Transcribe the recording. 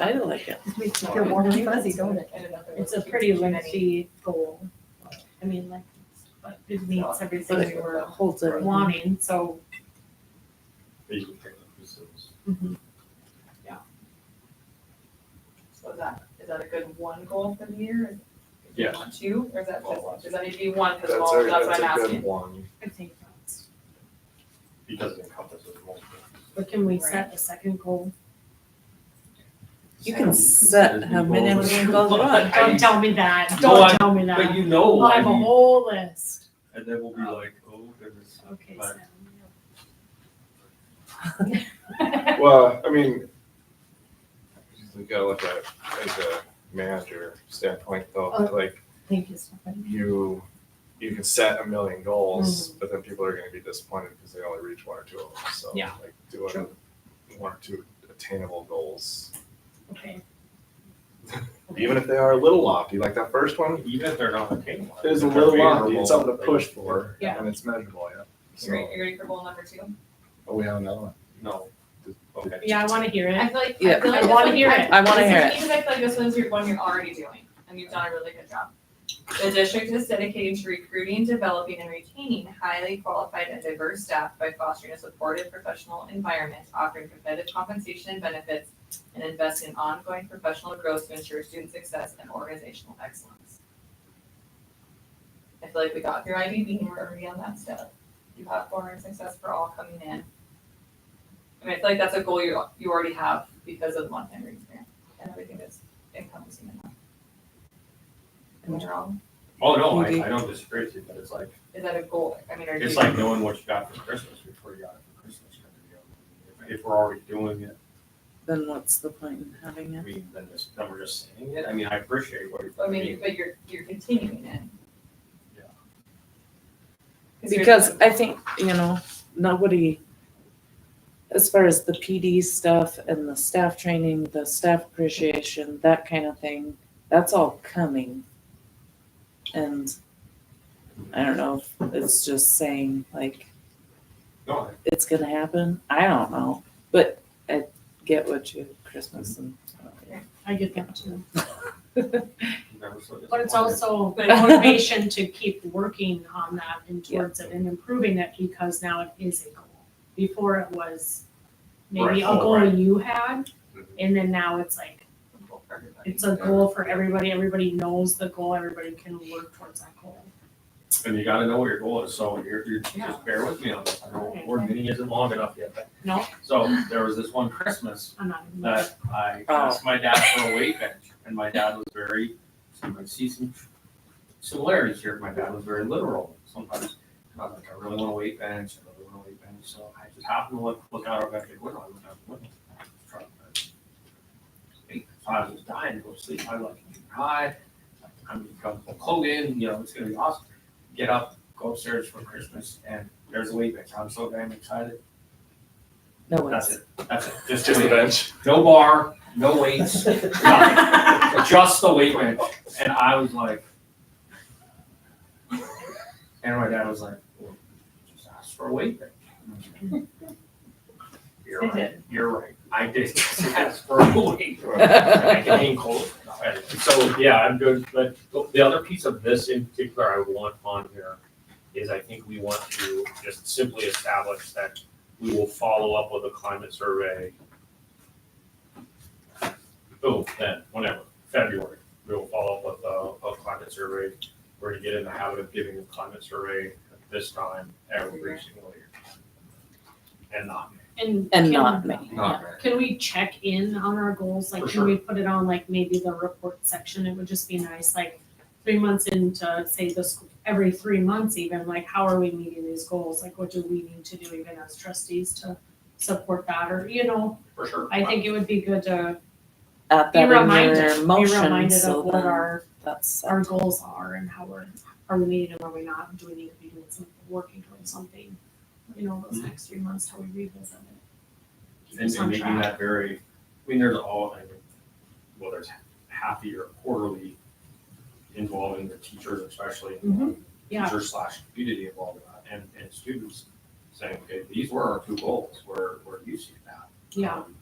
I like it. It makes me feel warm and fuzzy, don't it? It's a pretty lengthy goal. I mean, like, but it meets everything But we were Holds it. wanting, so. So is that, is that a good one goal for the year? If you Yes. want two, or is that Well, just, does that need to be one for the That's a, fall, that's what that's I'm a good asking? one. I think that's. because it encompasses multiple. But can we set a second goal? You can set how many of them goes on. I- Don't tell me that, No, I- don't tell me But that. you know, I have a I mean, whole list. and then we'll be like, oh, there's. Okay, But- Sam. Well, I mean, you gotta look at it as a manager standpoint though, Oh. like Thank you, Stephanie. you, you can set a million goals, Mm-hmm. but then people are gonna be disappointed because they only reach one or two of them, so. Yeah. Like doing one or two attainable goals, Okay. even if they are a little lofty, like that first one, Even if they're not attainable. There's a if they're little lofty, favorable, it's something to like- push for, Yeah. and it's measurable, yeah. You ready, So, you ready for goal number two? oh, we have another one. No, okay. Yeah, I wanna hear I it. feel like, Yeah. I feel like. I this wanna one- hear it. I wanna this hear is- it. Because I feel like this one's your one you're already doing, and you've done a really good job. The district is dedicated to recruiting, developing, and retaining highly qualified and diverse staff by fostering a supportive professional environment, offering competitive compensation and benefits, and investing in ongoing professional growth to ensure student success and organizational excellence. I feel like we got through IDB and we're already on that step. You have foreign success for all coming in. I mean, I feel like that's a goal you, you already have because of the Montana Reads Grant and everything that's encompassing in that. Am I wrong? Oh, no, Maybe. I, I don't disagree with you, but it's like, Is that a goal? I mean, are you? it's like knowing what you got for Christmas before you got it for Christmas. If- If we're already doing it, Then what's the point in having I it? mean, then just, then we're just saying it. I mean, I appreciate what you're. I mean, you- but you're, you're continuing it. Yeah. you're- Because I think, you know, nobody, as far as the PD stuff and the staff training, the staff appreciation, that kind of thing, that's all coming. And I don't know, if it's just saying like, No, I- it's gonna happen. I don't know, but I get what you, Christmas and. I get that too. I'm never so But it's disappointed. also a motivation to keep working on that and towards it and improving it because now it is a goal. Before it was maybe a Right, oh, goal right. Mm-hmm. you had, Mhm. and then now it's like, Goal for everybody. it's a goal for everybody, everybody knows the goal, everybody can work towards that goal. And you gotta know what your goal is, so you're, you're, Yeah. just bear with me on this, I know board meeting isn't long enough yet, but. No. So, there was this one Christmas I'm not. even- that I Oh. asked my dad for a weight bench, and my dad was very, so I see some similarities here, my dad was very literal sometimes. And I was like, I really want a weight bench, I really want a weight bench, so I just happened to look, look out over at the window, I looked out the window. I was trying to- So I was dying to go to sleep, I like, hi, I'm gonna become Hogan, you know, it's gonna be awesome get up, go upstairs for Christmas, and there's a weight bench. I'm so damn excited. No That's one's, it. That's it. Just It's just the a weight bench. bench. No bar, no weights, nothing. just the weight bench. And I was like, and my dad was like, well, just ask for a weight bench. And I was like, You're I right. did. You're right. I did just ask for a weight. bench. I can hang cold. So, yeah, I'm good, but the other piece of this in particular I want on here is I think we want to just simply establish that we will follow up with a climate survey. Oh, then, whenever, February, we will follow up with a, a climate survey. We're gonna get in the habit of giving a climate survey at this time every single year. And not. And. and can- not me. Yeah. Can we check in on our goals? Like, For can we put it on like maybe the report section? It would just be nice, like, three months into, say, this, every three months even, like, how are we meeting these goals? Like, what do we need to do even as trustees to support that? Or, you know, For sure. I think it would be good to At be that in reminded, your be motion, reminded so of what then our, that's, our goals are and how we're, are we meeting them, are we not? Do we need to be doing something, working towards something? You know, those next three months, how we revisit it. Keep And us and on making track. that very, I mean, there's all, I mean, whether it's happy or quarterly, involving the teachers especially. Mhm. Yeah. Teacher slash community involved in that, and, and students saying, okay, these were our two goals, where, where you see that. Yeah. Um,